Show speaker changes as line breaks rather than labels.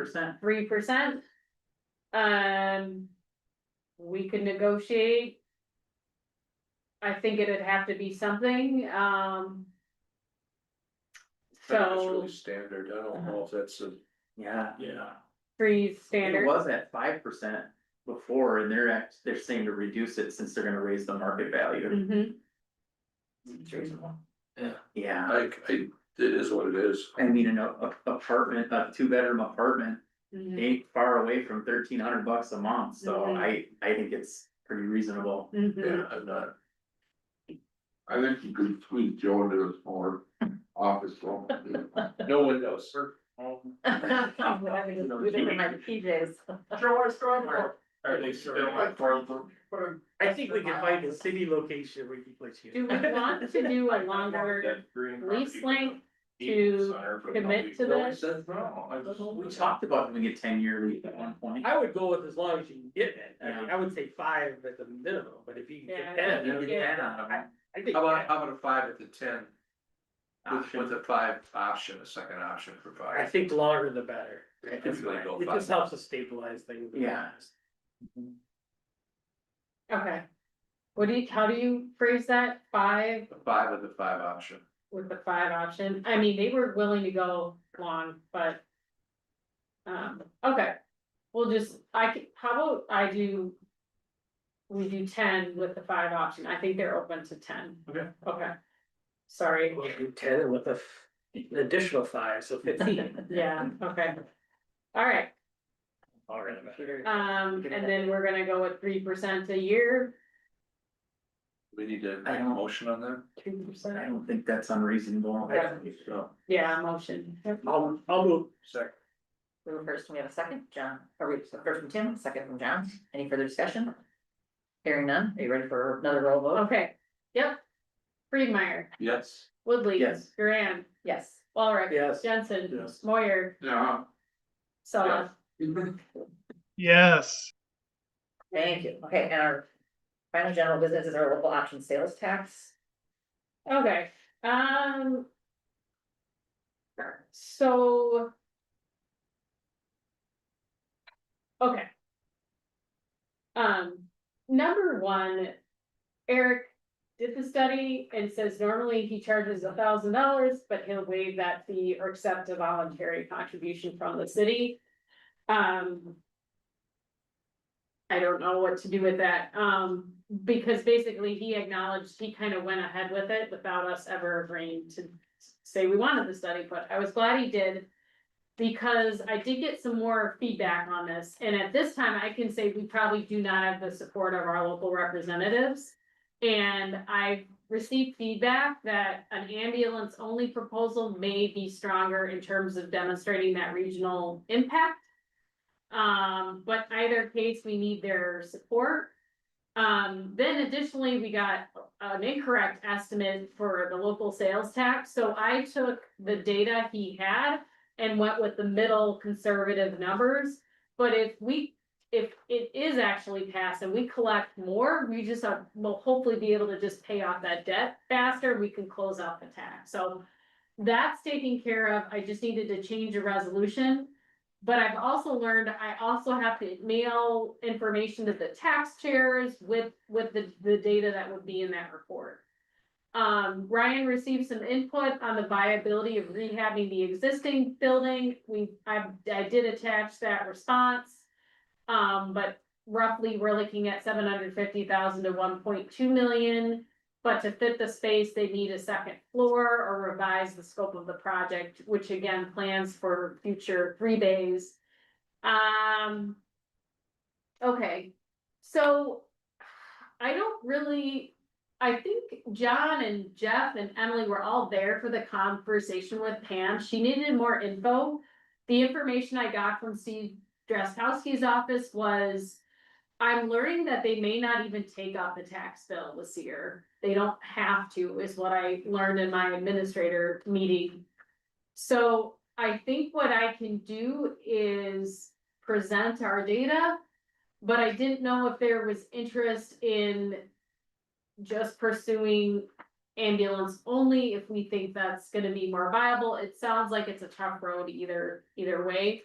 percent.
three percent. Um. We could negotiate. I think it'd have to be something, um.
That's
So, uh-huh.
really standard, I don't know if that's a,
Yeah.
yeah,
three
It
standard,
was at five percent before and they're act, they're saying to reduce it since they're gonna raise the market value.
Mhm.
It's reasonable.
Yeah.
Yeah.
I, I, it is what it is.
I mean, an a- a- apartment, a two bedroom apartment
mhm,
ain't far away from thirteen hundred bucks a month, so
Mhm.
I, I think it's pretty reasonable.
mhm.
Yeah, I'm not,
I think you could squeeze Joe into a smaller office room.
no one knows, sir.
Whatever, just do it for my PJs.
Are they
I think we can find a city location where you can place you.
Do we want to do a longer lease length to commit to this?
We talked about doing a ten year lease at one point.
I would go with as long as you can get it, I mean, I would say five at the minimum, but if you can
Yeah.
get ten, I mean,
Yeah.
I think.
How about, how about a five at the ten, with,
Option.
with a five option, a second option for
I
five?
think longer the better,
I think we go
it just
five.
helps us stabilize things.
Yeah.
Okay. What do you, how do you phrase that? Five
A Five of the five option,
with the five option. I mean, they were willing to go long, but. Um, okay, we'll just, I could, how about I do. We do ten with the five option. I think they're open to ten.
Okay.
Okay. Sorry,
We'll do ten with a, f- an additional five, so fifteen.
yeah, okay. All right,
All right, about it.
um, and then we're gonna go with three percent a year,
we need to
I
make a
don't-
motion on that?
two
I
percent.
don't think that's unreasonable.
Yeah.
So,
Yeah, motion.
I'll, I'll move,
Second.
We have a first, we have a second, John, or we, so first from Tim, second from John, any further discussion? Hearing none, are you ready for another roll vote?
Okay, yep. Freemeyer,
Yes.
Woodley.
Yes.
Duran,
Yes.
Walrick.
yes.
Jensen.
Yes.
Moyer.
Yeah.
Sella.
Yes.
Thank you, okay, and our final general business is our local option sales tax.
Okay, um. So. Okay. Um, number one, Eric did the study and says normally he charges a thousand dollars, but he'll waive that fee or accept a voluntary contribution from the city. Um. I don't know what to do with that, um, because basically he acknowledged, he kind of went ahead with it without us ever agreeing to say we wanted the study, but I was glad he did. Because I did get some more feedback on this, and at this time, I can say we probably do not have the support of our local representatives. And I received feedback that an ambulance only proposal may be stronger in terms of demonstrating that regional impact. Um, but either case, we need their support. Um, then additionally, we got an incorrect estimate for the local sales tax, so I took the data he had. And went with the middle conservative numbers, but if we, if it is actually passed and we collect more, we just uh, will hopefully be able to just pay off that debt faster, we can close out the tax, so. That's taken care of, I just needed to change a resolution but I've also learned, I also have to mail information to the tax chairs with, with the, the data that would be in that report. Um, Ryan received some input on the viability of rehabbing the existing building. We, I, I did attach that response. Um, but roughly, we're looking at seven hundred fifty thousand to one point two million. But to fit the space, they need a second floor or revise the scope of the project, which again, plans for future three days. Um. Okay, so I don't really, I think John and Jeff and Emily were all there for the conversation with Pam. She needed more info. The information I got from Steve Dresskowski's office was. I'm learning that they may not even take up the tax bill this year. They don't have to, is what I learned in my administrator meeting. So I think what I can do is present our data. But I didn't know if there was interest in just pursuing ambulance only if we think that's gonna be more viable. It sounds like it's a tough road either, either way.